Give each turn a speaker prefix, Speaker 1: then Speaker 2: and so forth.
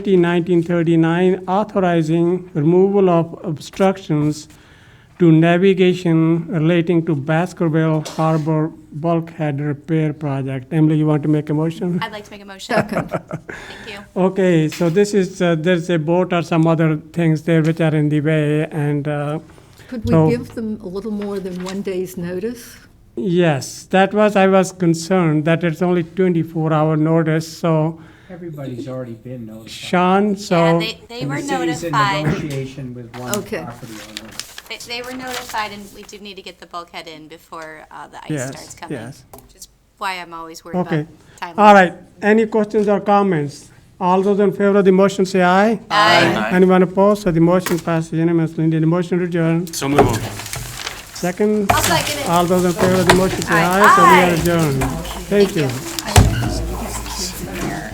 Speaker 1: 1939 authorizing removal of obstructions to navigation relating to Baskerville Harbor Bulkhead Repair Project. Emily, you want to make a motion?
Speaker 2: I'd like to make a motion. Thank you.
Speaker 1: Okay, so this is, uh, there's a boat or some other things there which are in the way, and uh,
Speaker 3: Could
Speaker 1: So-
Speaker 3: we give them a little more than one day's notice?
Speaker 1: yes, that was, I was concerned that it's only 24-hour notice, so
Speaker 4: Everybody's already been notified.
Speaker 1: Sean,
Speaker 2: Yeah,
Speaker 1: so,
Speaker 2: they, they
Speaker 4: And
Speaker 2: were
Speaker 4: the city's in
Speaker 2: notified.
Speaker 4: negotiation with one
Speaker 3: Okay.
Speaker 4: property owner.
Speaker 2: They, they were notified and we do need to get the bulkhead in before, uh, the ice starts
Speaker 1: yes,
Speaker 2: coming.
Speaker 1: yes.
Speaker 2: Which is why I'm always worried
Speaker 1: Okay.
Speaker 2: about time.
Speaker 1: All right, any questions or comments? All those in favor of the motion say aye.
Speaker 2: Aye.
Speaker 1: Anyone opposed? So the motion passes unanimously. Need a motion to adjourn?
Speaker 5: So moved.
Speaker 1: Second?
Speaker 2: I'll second it.
Speaker 1: All those in favor of the motion say aye. So we are adjourned. Thank you.